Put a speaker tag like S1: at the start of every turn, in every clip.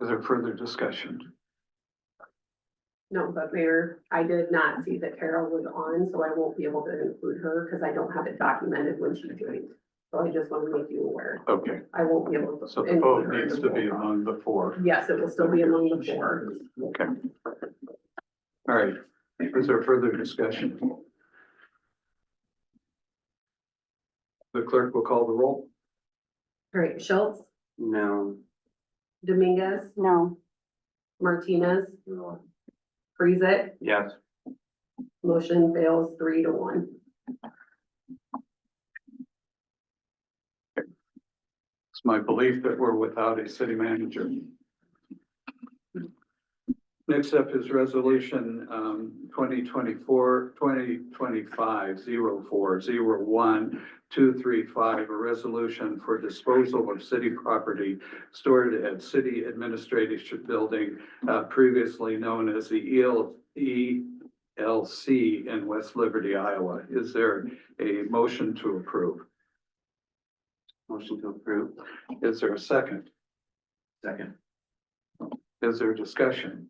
S1: Is there further discussion?
S2: No, but Mayor, I did not see that Carol was on, so I won't be able to include her because I don't have it documented when she joined. So I just want to make you aware.
S1: Okay,
S2: I won't be able to.
S1: so the
S2: include
S1: vote
S2: her in
S1: needs
S2: the
S1: to be
S2: roll call.
S1: among the four.
S2: Yes, it will still be among the four.
S1: Okay. All right, is there further discussion? The clerk will call the roll.
S2: All right, Schultz,
S3: No.
S2: Dominguez,
S3: No.
S2: Martinez, freeze it.
S3: Yes.
S2: Motion fails three to one.
S1: It's my belief that we're without a city manager. Next up is resolution um 2024, 2025, 0401, a resolution for disposal of city property stored at City Administration Building, uh, previously known as the E EL ELC in West Liberty, Iowa. Is there a motion to approve?
S3: Motion to approve.
S1: Is there a second?
S3: Second.
S1: Is there discussion?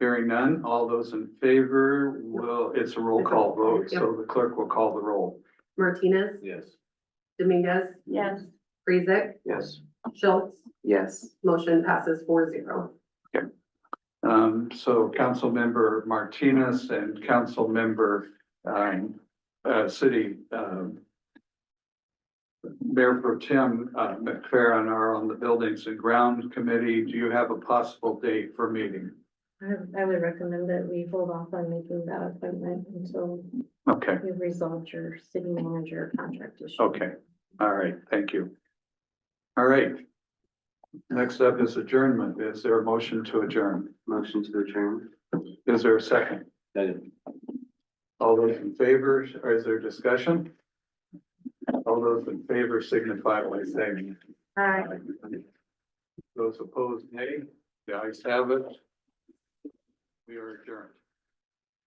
S1: Hearing none, all those in favor will, it's a roll call vote, so the clerk will call the roll.
S2: Martinez,
S3: Yes.
S2: Dominguez,
S4: Yes.
S2: freeze it.
S3: Yes.
S2: Schultz,
S3: Yes.
S2: motion passes four zero.
S1: Um, so Councilmember Martinez and Councilmember, um, uh, City, um, Mayor Pro Tem, uh, McFerrin are on the Buildings and Ground Committee. Do you have a possible date for meeting?
S4: I, I would recommend that we hold off on making that appointment until
S1: Okay.
S4: you've resolved your city manager contract issue.
S1: Okay, all right, thank you. All right. Next up is adjournment. Is there a motion to adjourn?
S3: Motion to adjourn.
S1: Is there a second?
S3: Second.
S1: All those in favor, or is there discussion? All those in favor signify by saying
S4: Hi.
S1: aye. Those opposed, nay. The ayes have it. We are adjourned.